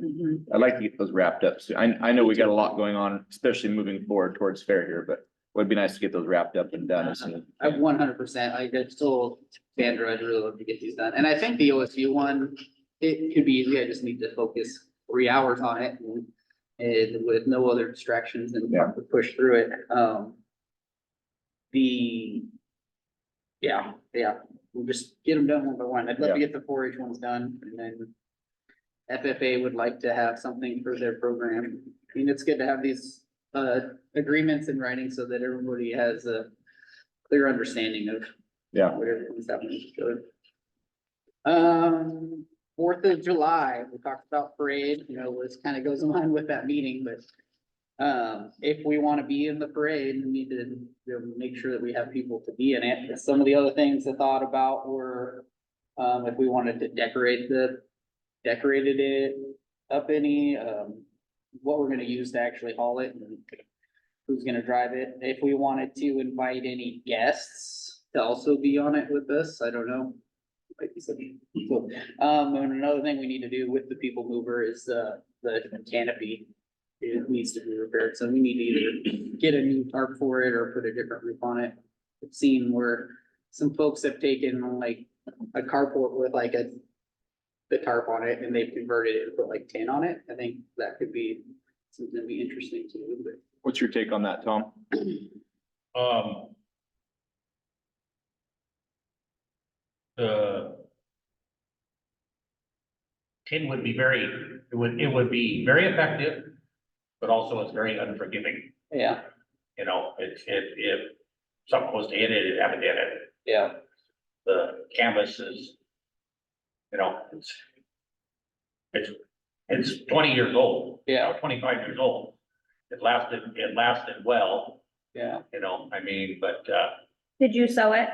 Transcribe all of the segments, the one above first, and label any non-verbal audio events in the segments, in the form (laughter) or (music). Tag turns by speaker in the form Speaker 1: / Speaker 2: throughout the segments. Speaker 1: Mhm.
Speaker 2: I'd like to get those wrapped up soon. I, I know we got a lot going on, especially moving forward towards fair here, but it would be nice to get those wrapped up and done as soon. as
Speaker 1: I
Speaker 2: we can.
Speaker 1: Uh, one hundred percent, I just told Sandra, I'd really love to get these done, and I think the OSU one, it could be easy, I just need to focus three hours on it. and- And with no other distractions and
Speaker 2: Yeah.
Speaker 1: push through it, um. The. Yeah, yeah, we'll just get them done one by one, I'd love to get the four H ones done, and then. FFA would like to have something for their program, I mean, it's good to have these, uh, agreements in writing so that everybody has a clear understanding of.
Speaker 2: Yeah.
Speaker 1: Whatever is happening. Good. Um, Fourth of July, we talked about parade, you know, this kind of goes in line with that meeting, but. Um, if we want to be in the parade, we need to, you know, make sure that we have people to be in it. Some of the other things I thought about were. Um, if we wanted to decorate the, decorated it up any, um, what we're gonna use to actually haul it and who's gonna drive it. If we wanted to invite any guests to also be on it with us, I don't know. Might be something. Cool. Um, and another thing we need to do with the people mover is, uh, the canopy. It needs to be repaired, so we need to either get a new tarp for it or put a different roof on it. I've seen where some folks have taken like a carport with like a the tarp on it and they've converted it and put like tin on it. I think that could be something that'd be interesting to do, but
Speaker 2: What's your take on that, Tom?
Speaker 3: Um. The. Tin would be very, it would, it would be very effective, but also it's very unforgiving,
Speaker 1: Yeah,
Speaker 3: you know, it, it, if something was to hit it, it happened to hit it,
Speaker 1: yeah,
Speaker 3: the canvas is. You know, it's. It's, it's twenty years old. you know, Twenty-five years old. It lasted, it lasted well,
Speaker 1: yeah.
Speaker 3: you know, I mean, but, uh.
Speaker 4: Did you sew it?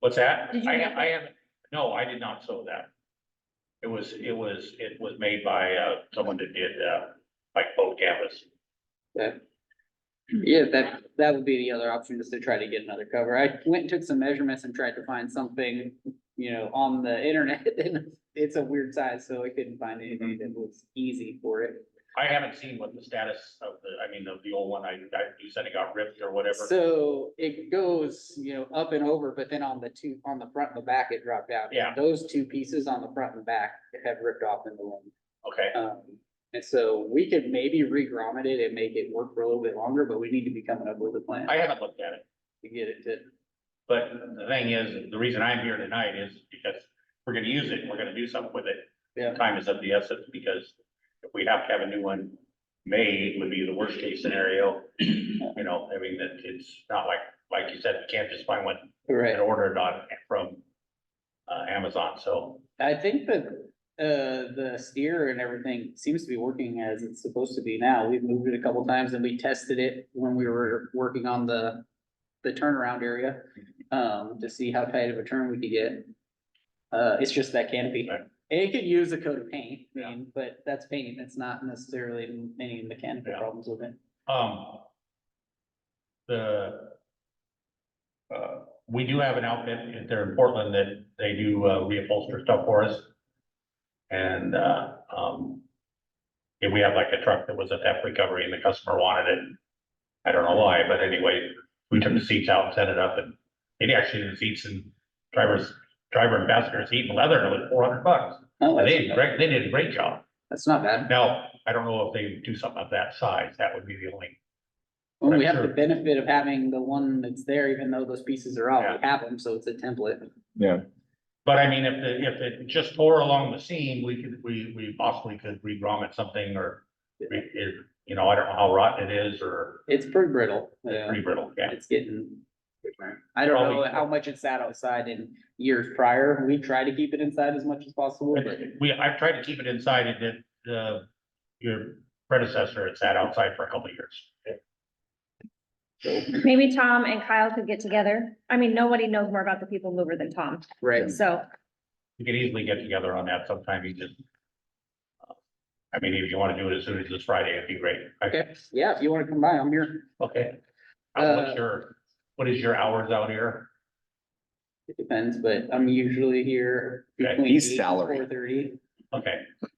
Speaker 3: What's that?
Speaker 4: Did you
Speaker 3: I,
Speaker 4: make
Speaker 3: I haven't, no, I did not sew that. It was, it was, it was made by, uh, someone that did, uh, like boat canvas. Hmm.
Speaker 1: Yeah, that, that would be the other option is to try to get another cover. I went and took some measurements and tried to find something, you know, on the internet. (laughs) And it's a weird size, so I couldn't find anything that was easy for it.
Speaker 3: I haven't seen what the status of the, I mean, of the old one, I, I, you said it got ripped or whatever.
Speaker 1: So it goes, you know, up and over, but then on the two, on the front and the back, it dropped out.
Speaker 3: Yeah.
Speaker 1: Those two pieces on the front and back have ripped off in the wind.
Speaker 3: Okay,
Speaker 1: Um, and so we could maybe re-grommet it and make it work for a little bit longer, but we need to be coming up with a plan
Speaker 3: I haven't looked at it,
Speaker 1: to get it to.
Speaker 3: but the thing is, the reason I'm here tonight is because we're gonna use it, we're gonna do something with it.
Speaker 1: Yeah.
Speaker 3: Time is of the essence, because if we have to have a new one made, would be the worst case scenario. You know, I mean, that it's not like, like you said, we can't just find one
Speaker 1: Right.
Speaker 3: and order it on from uh, Amazon, so.
Speaker 1: I think that, uh, the steer and everything seems to be working as it's supposed to be now. We've moved it a couple times and we tested it when we were working on the, the turnaround area, um, to see how tight of a turn we could get. Uh, it's just that canopy.
Speaker 3: Right.
Speaker 1: It could use a coat of paint, I mean, but that's paint. That's not necessarily any mechanical
Speaker 3: Yeah.
Speaker 1: problems with it.
Speaker 3: Um. The. Uh, we do have an outfit, if they're in Portland, that they do uh, reupholster stuff for us. And, uh, um. If we have like a truck that was a theft recovery and the customer wanted it. I don't know why, but anyway, we took the seats out and set it up and it actually the seats and drivers, driver and passenger seat and leather, and it was four hundred bucks.
Speaker 1: Oh,
Speaker 3: They
Speaker 1: that's
Speaker 3: did,
Speaker 1: not bad.
Speaker 3: a great- they did a great job.
Speaker 1: That's not bad.
Speaker 3: Now, I don't know if they do something of that size, that would be the only,
Speaker 1: Well, we
Speaker 3: Right,
Speaker 1: have the
Speaker 3: sure.
Speaker 1: benefit of having the one that's there, even though those pieces are out, we have them, so it's a template.
Speaker 2: Yeah,
Speaker 3: but I mean, if the, if it just tore along the seam, we could, we, we possibly could re-grommet something or. re- If, you know, I don't know how rotten it is or
Speaker 1: It's pretty brittle. yeah.
Speaker 3: re brittle, yeah,
Speaker 1: It's getting. I don't know
Speaker 3: Probably-
Speaker 1: how much it sat outside in years prior. We try to keep it inside as much as possible, but
Speaker 3: we, I tried to keep it inside, it did, uh, your predecessor had sat outside for a couple of years.
Speaker 4: Maybe Tom and Kyle could get together. I mean, nobody knows more about the people mover than Tom,
Speaker 1: right.
Speaker 4: so.
Speaker 3: We could easily get together on that sometime, you just. uh, I mean, if you wanna do it as soon as this Friday, it'd be great.
Speaker 1: Okay, yeah, if you wanna come by, I'm here.
Speaker 3: Okay. Uh,
Speaker 1: Uh,
Speaker 3: What's your, what is your hours out here?
Speaker 1: It depends, but I'm usually here.
Speaker 3: Okay,
Speaker 1: between
Speaker 2: he's
Speaker 1: eight and
Speaker 2: salary.
Speaker 1: 4:30.
Speaker 3: Okay,